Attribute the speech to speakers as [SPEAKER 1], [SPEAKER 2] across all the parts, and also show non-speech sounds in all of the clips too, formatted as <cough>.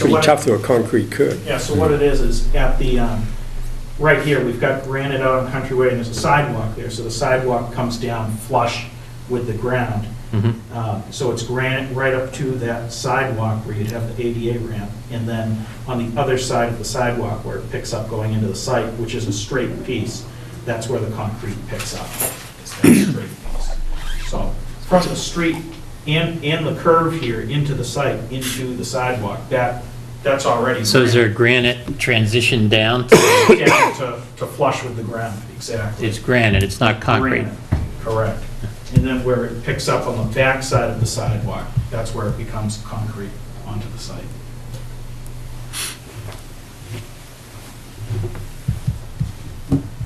[SPEAKER 1] Pretty
[SPEAKER 2] what-
[SPEAKER 1] tough through a concrete curb.
[SPEAKER 2] Yeah, so what it is, is at the, um, right here, we've got granite out on Country Way, and there's a sidewalk there, so the sidewalk comes down flush with the ground.
[SPEAKER 3] Mm-hmm.
[SPEAKER 2] Uh, So it's granite right up to that sidewalk where you'd have the ADA ramp, and then on the other side of the sidewalk where it picks up going into the site, which is a straight piece, that's where the concrete picks up. It's that straight piece. So from the street and, and the curve here into the site, into the sidewalk, that, that's already.
[SPEAKER 3] So is
[SPEAKER 2] granite
[SPEAKER 3] there granite transition down? to-
[SPEAKER 4] <coughs>
[SPEAKER 2] down to, to flush with the ground, exactly.
[SPEAKER 3] It's granite, it's not concrete.
[SPEAKER 2] Granite, Correct. And then where it picks up on the backside of the sidewalk, that's where it becomes concrete onto the site.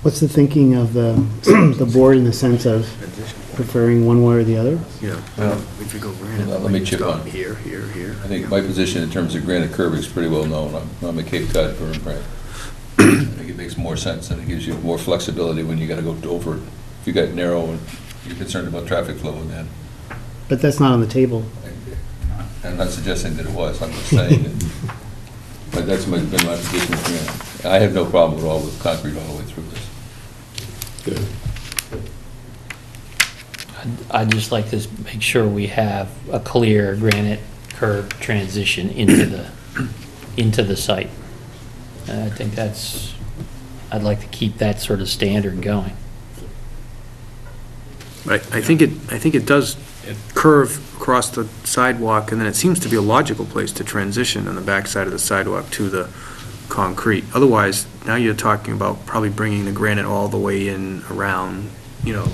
[SPEAKER 5] What's the thinking of the, <clears throat> the board in the sense of preferring one way or the other?
[SPEAKER 6] Yeah,
[SPEAKER 7] Well,
[SPEAKER 6] if you go granite,
[SPEAKER 7] Let me
[SPEAKER 6] like, it's
[SPEAKER 7] chip
[SPEAKER 6] gone
[SPEAKER 7] on.
[SPEAKER 6] Here, here, here.
[SPEAKER 7] I think my position in terms of granite curb is pretty well known. I'm- I'm a Cape Cod firm, right? I think it makes more sense, and it gives you more flexibility when you gotta go over it. If you got narrow and you're concerned about traffic flow and that.
[SPEAKER 5] But that's not on the table.
[SPEAKER 7] I'm not suggesting that it was, I'm just saying that. But that's my- been my position with granite. I have no problem at all with concrete all the way through this.
[SPEAKER 1] Good.
[SPEAKER 3] I'd- I'd just like to s- make sure we have a clear granite curb transition into the, into the site. And I think that's, I'd like to keep that sort of standard going.
[SPEAKER 4] I, I think it, I think it does curve across the sidewalk, and then it seems to be a logical place to transition on the backside of the sidewalk to the concrete. Otherwise, now you're talking about probably bringing the granite all the way in around, you know,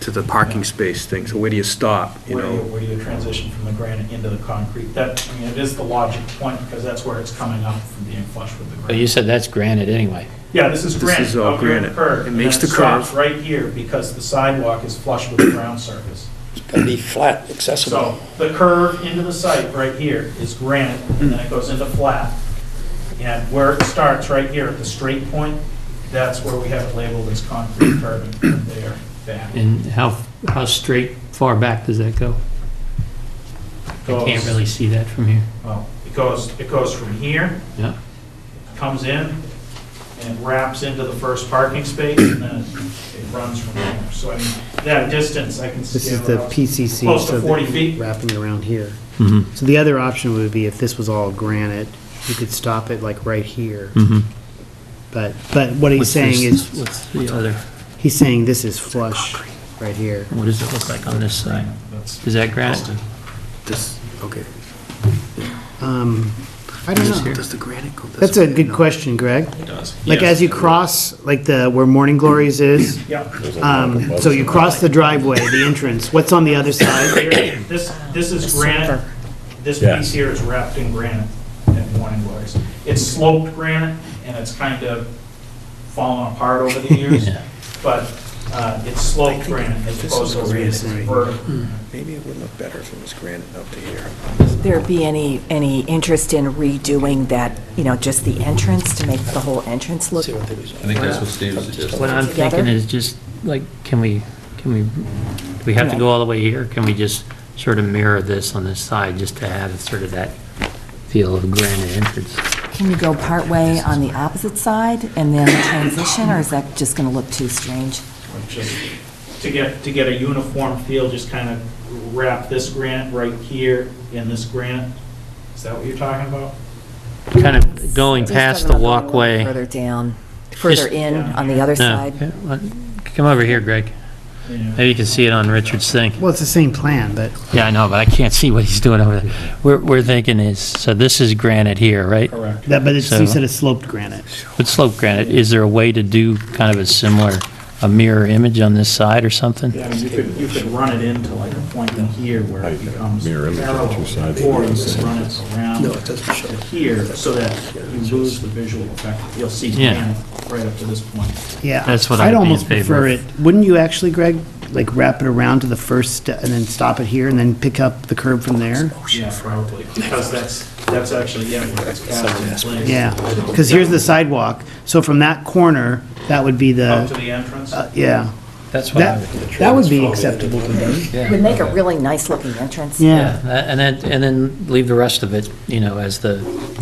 [SPEAKER 4] to the parking space thing, so where do you stop, you
[SPEAKER 2] Where do you,
[SPEAKER 4] know?
[SPEAKER 2] where do you transition from the granite into the concrete? That, I mean, it is the logic point, because that's where it's coming up from being flush with the
[SPEAKER 3] But you
[SPEAKER 2] ground.
[SPEAKER 3] said that's granite anyway.
[SPEAKER 2] Yeah, this is
[SPEAKER 4] This
[SPEAKER 2] granite,
[SPEAKER 4] is all
[SPEAKER 2] up here in the
[SPEAKER 4] granite.
[SPEAKER 2] curve.
[SPEAKER 4] It
[SPEAKER 2] and
[SPEAKER 4] makes
[SPEAKER 2] then
[SPEAKER 4] the
[SPEAKER 2] stops
[SPEAKER 4] curve.
[SPEAKER 2] Right here, because the sidewalk is flush with the ground surface.
[SPEAKER 1] It's gotta be flat, accessible.
[SPEAKER 2] So the curve into the site right here is granite, and then it goes into flat. And where it starts, right here at the straight point, that's where we have it labeled as concrete curb and from there back.
[SPEAKER 3] And how, how straight, far back does that go? I can't
[SPEAKER 2] Goes-
[SPEAKER 3] really see that from here.
[SPEAKER 2] Well, it goes, it goes from here,
[SPEAKER 3] Yeah.
[SPEAKER 2] comes in, and it wraps into the first parking space, and then it runs from there. So I mean, that distance, I can see.
[SPEAKER 5] This is the PCC.
[SPEAKER 2] Close to
[SPEAKER 5] so that
[SPEAKER 2] 40
[SPEAKER 5] you're
[SPEAKER 2] feet.
[SPEAKER 5] Wrapping around here. So the other option would be if this was all granite, you could stop it like right here. But, but what he's
[SPEAKER 3] What's
[SPEAKER 5] saying
[SPEAKER 3] this-
[SPEAKER 5] is,
[SPEAKER 3] What's the other,
[SPEAKER 5] he's saying this is flush right here.
[SPEAKER 3] what does it look like on this side?
[SPEAKER 2] That's-
[SPEAKER 3] Is that granite?
[SPEAKER 4] This, okay,
[SPEAKER 5] Um, I don't know.
[SPEAKER 4] does the granite go this way?
[SPEAKER 5] That's a good question, Greg.
[SPEAKER 2] It does.
[SPEAKER 5] Like as you cross, like the, where Morning Glories is,
[SPEAKER 2] Yep.
[SPEAKER 5] um, so you cross the driveway, the entrance, what's on the other side?
[SPEAKER 2] Here, This, this is granite, this piece here is wrapped in granite at Morning Glories. It's sloped granite, and it's kind of fallen apart over the years,
[SPEAKER 3] Yeah.
[SPEAKER 2] but uh, it's sloped granite as opposed to vertical.
[SPEAKER 6] Maybe it would look better if it was granite up to here.
[SPEAKER 8] there be any, any interest in redoing that, you know, just the entrance to make the whole entrance look?
[SPEAKER 7] I think that's what Steve suggested.
[SPEAKER 3] What I'm
[SPEAKER 8] Together?
[SPEAKER 3] thinking is just, like, can we, can we, do we have to go all the way here? Can we just sort of mirror this on this side, just to have sort of that feel of granite entrance?
[SPEAKER 8] Can you go partway on the opposite side and then transition, or is that just going to look too strange?
[SPEAKER 2] Just to get, to get a uniform feel, just kind of wrap this granite right here in this granite. Is that what you're talking about?
[SPEAKER 3] Kind of going
[SPEAKER 8] Just
[SPEAKER 3] past
[SPEAKER 8] have
[SPEAKER 3] the
[SPEAKER 8] it a little
[SPEAKER 3] walkway.
[SPEAKER 8] Further down, further in on the other
[SPEAKER 3] No,
[SPEAKER 8] side.
[SPEAKER 3] What- come over here, Greg.
[SPEAKER 2] Yeah.
[SPEAKER 3] Maybe you can see it on Richard's thing.
[SPEAKER 5] Well, it's the same plan, but
[SPEAKER 3] Yeah, I know, but I can't see what he's doing over there. We're, we're thinking is, so this is granite here, right?
[SPEAKER 2] Correct.
[SPEAKER 5] That, but it's, you
[SPEAKER 3] So-
[SPEAKER 5] said it's sloped granite.
[SPEAKER 3] With slope granite, is there a way to do kind of a similar, a mirror image on this side or something?
[SPEAKER 2] Yeah, I mean, you could, you could run it into like a point in here where it becomes
[SPEAKER 9] Mirror image of the
[SPEAKER 2] parallel,
[SPEAKER 9] two sides.
[SPEAKER 2] or you could run it around to here, so that you lose the visual effect. You'll see
[SPEAKER 3] Yeah.
[SPEAKER 2] pan right up to this point.
[SPEAKER 5] Yeah.
[SPEAKER 3] That's what I'd be in
[SPEAKER 5] almost
[SPEAKER 3] favor
[SPEAKER 5] prefer
[SPEAKER 3] of.
[SPEAKER 5] it. Wouldn't you actually, Greg, like wrap it around to the first step and then stop it here and then pick up the curb from there?
[SPEAKER 2] Yeah, probably, because that's, that's actually, yeah, where it's cast in place.
[SPEAKER 5] Yeah, because here's the sidewalk. So from that corner, that would be
[SPEAKER 2] Up to
[SPEAKER 5] the,
[SPEAKER 2] the entrance,
[SPEAKER 5] uh, yeah.
[SPEAKER 3] That's what I
[SPEAKER 5] That,
[SPEAKER 3] would do.
[SPEAKER 5] that would be acceptable to me.
[SPEAKER 3] Yeah.
[SPEAKER 8] Would make a really nice-looking entrance.
[SPEAKER 5] Yeah.
[SPEAKER 3] Yeah, and then, and then leave the rest of it, you know, as the,